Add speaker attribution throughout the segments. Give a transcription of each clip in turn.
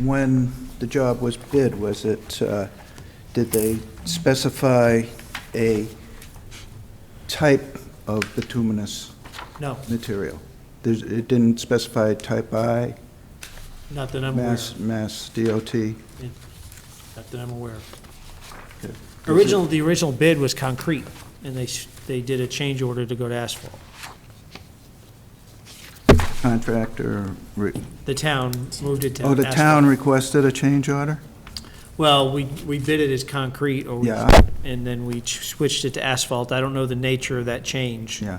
Speaker 1: when the job was bid, was it, uh, did they specify a type of bituminous
Speaker 2: No,
Speaker 1: material? There's- It didn't specify type I,
Speaker 2: not that I'm aware
Speaker 1: Mass,
Speaker 2: of.
Speaker 1: Mass DOT?
Speaker 2: Not that I'm aware of.
Speaker 1: Okay.
Speaker 2: Original, the original bid was concrete, and they, s- they did a change order to go to asphalt.
Speaker 1: Contractor, re-
Speaker 2: The town moved it to
Speaker 1: oh,
Speaker 2: asphalt.
Speaker 1: the town requested a change order?
Speaker 2: Well, we, we bid it as concrete, or, we-
Speaker 1: Yeah.
Speaker 2: and then we ch- switched it to asphalt. I don't know the nature of that change.
Speaker 1: Yeah,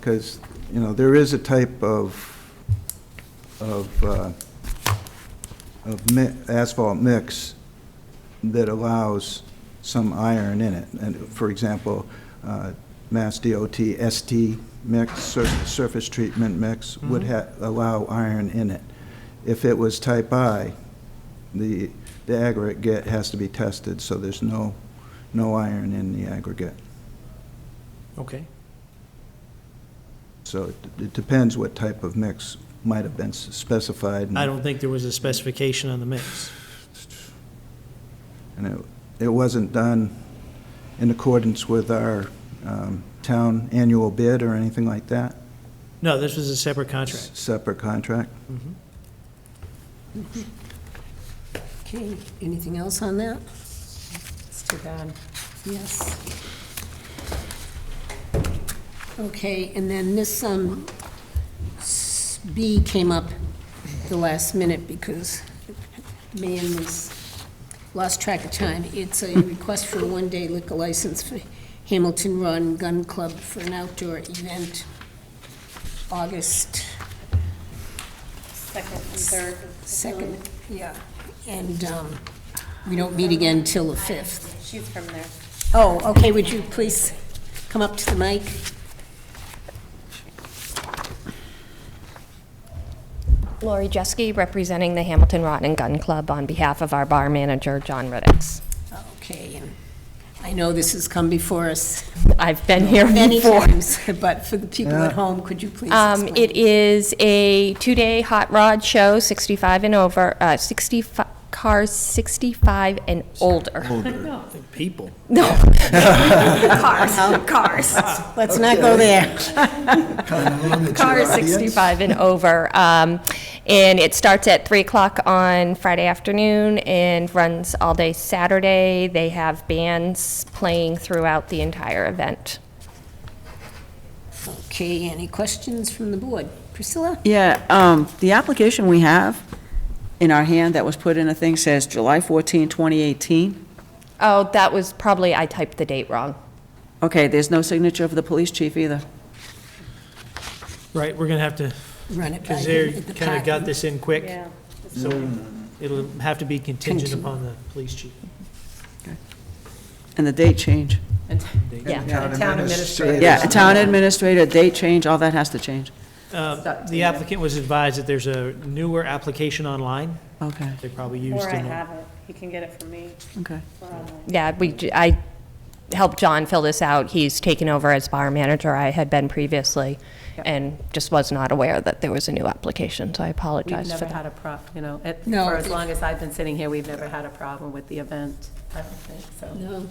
Speaker 1: because, you know, there is a type of, of, uh, of mi- asphalt mix that allows some iron in it. And for example, uh, Mass DOT ST mix, sur- surface treatment mix would ha, allow iron in it. If it was type I, the, the aggregate has to be tested, so there's no, no iron in the aggregate.
Speaker 2: Okay.
Speaker 1: Mm-hmm. So it- it depends what type of mix might have been s- specified. and-
Speaker 2: I don't think there was a specification on the mix.
Speaker 1: And it, it wasn't done in accordance with our um, town annual bid or anything like that?
Speaker 2: No, this was a separate contract. Mm-hmm.
Speaker 1: Separate contract?
Speaker 3: Okay, anything else on that?
Speaker 4: It's too bad.
Speaker 3: Yes. Okay, and then this, um, s- B came up the last minute because man was, lost track of time. It's a request for a one-day liquor license for Hamilton Run Gun Club for an outdoor event, August
Speaker 4: Second and third.
Speaker 3: second. Yeah. And, um, we don't meet again till the fifth.
Speaker 4: She's from there.
Speaker 3: Oh, okay, would you please come up to the mic?
Speaker 5: Lori Jeske, representing the Hamilton Rod and Gun Club on behalf of our bar manager, John Riddicks.
Speaker 3: Okay, and I know this has come before us
Speaker 5: I've been here
Speaker 3: many
Speaker 5: before.
Speaker 3: times, but for the people at
Speaker 1: Yeah.
Speaker 3: home, could you please
Speaker 5: Um,
Speaker 3: explain?
Speaker 5: It is a two-day hot rod show, 65 and over, uh, 65, cars 65 and older.
Speaker 2: People.
Speaker 5: No. Cars, cars.
Speaker 3: Let's not go there.
Speaker 5: Cars 65 and over. Um, And it starts at 3 o'clock on Friday afternoon and runs all day Saturday. They have bands playing throughout the entire event.
Speaker 3: Okay, any questions from the board? Priscilla?
Speaker 6: Yeah, um, the application we have in our hand that was put in, I think, says July 14, 2018.
Speaker 5: Oh, that was probably, I typed the date wrong.
Speaker 6: Okay, there's no signature of the police chief either.
Speaker 2: Right, we're going to have to,
Speaker 3: Run it by
Speaker 2: because
Speaker 3: you
Speaker 2: they
Speaker 3: at the
Speaker 2: kind of got
Speaker 3: park.
Speaker 2: this in quick.
Speaker 4: Yeah.
Speaker 2: So it'll have to be contingent upon the police chief.
Speaker 6: And the date change.
Speaker 5: Yeah.
Speaker 4: Town administrator.
Speaker 6: Yeah, a town administrator, date change, all that has to change.
Speaker 2: Uh, The applicant was advised that there's a newer application online.
Speaker 6: Okay,
Speaker 2: They probably used
Speaker 4: Or I
Speaker 2: in the
Speaker 4: have it. You can get it from me.
Speaker 6: okay.
Speaker 4: We're online.
Speaker 5: Yeah, we, j- I helped John fill this out. He's taken over as bar manager. I had been previously and just was not aware that there was a new application, so I
Speaker 4: We've
Speaker 5: apologize for
Speaker 4: never
Speaker 5: that.
Speaker 4: had a prob, you know, it-
Speaker 3: No.
Speaker 4: for as long as I've been sitting here, we've never had a problem with the event. I don't think so.
Speaker 3: No,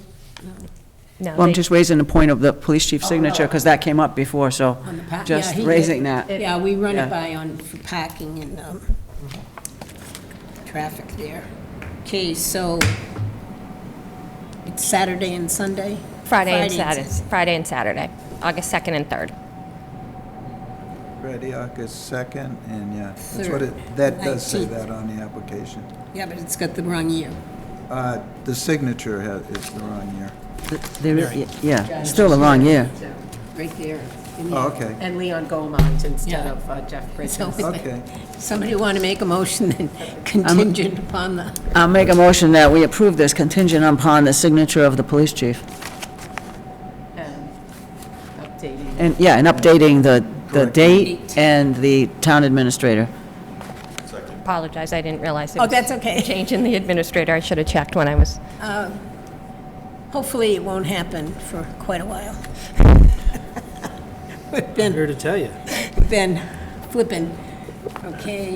Speaker 5: No,
Speaker 6: Well, I'm
Speaker 5: they-
Speaker 6: just raising the point of the police chief's signature, because that came up before, so
Speaker 3: on the park.
Speaker 6: just
Speaker 3: Yeah, he-
Speaker 6: raising that.
Speaker 3: Yeah, we run
Speaker 6: Yeah.
Speaker 3: it by on, for parking and, um, traffic there. Okay, so it's Saturday and Sunday?
Speaker 5: Friday and Saturday,
Speaker 3: Saturday.
Speaker 5: Friday and Saturday, August 2nd and 3rd.
Speaker 1: Friday, August 2nd, and yeah, that's what it, that does say that on the application.
Speaker 3: Yeah, but it's got the wrong year.
Speaker 1: Uh, The signature ha is the wrong year.
Speaker 6: There is- Yeah, it's still the wrong year.
Speaker 3: right there. in the-
Speaker 1: Oh, okay,
Speaker 4: And Leon Gomond instead
Speaker 3: Yeah.
Speaker 4: of uh, Jeff
Speaker 3: So,
Speaker 4: Bridges.
Speaker 1: okay.
Speaker 3: somebody want to make a motion then contingent upon the,
Speaker 6: I'll make a motion that we approve this contingent upon the signature of the police chief.
Speaker 4: and Updating.
Speaker 6: And, yeah, and updating the, the
Speaker 1: Correct.
Speaker 6: date and the town administrator.
Speaker 5: Apologize, I didn't realize it
Speaker 3: Oh,
Speaker 5: was
Speaker 3: that's okay.
Speaker 5: a change in the administrator. I should have checked when I was,
Speaker 3: hopefully it won't happen for quite a while. We've
Speaker 2: I'm
Speaker 3: been,
Speaker 2: here to tell you.
Speaker 3: we've been flipping. Okay,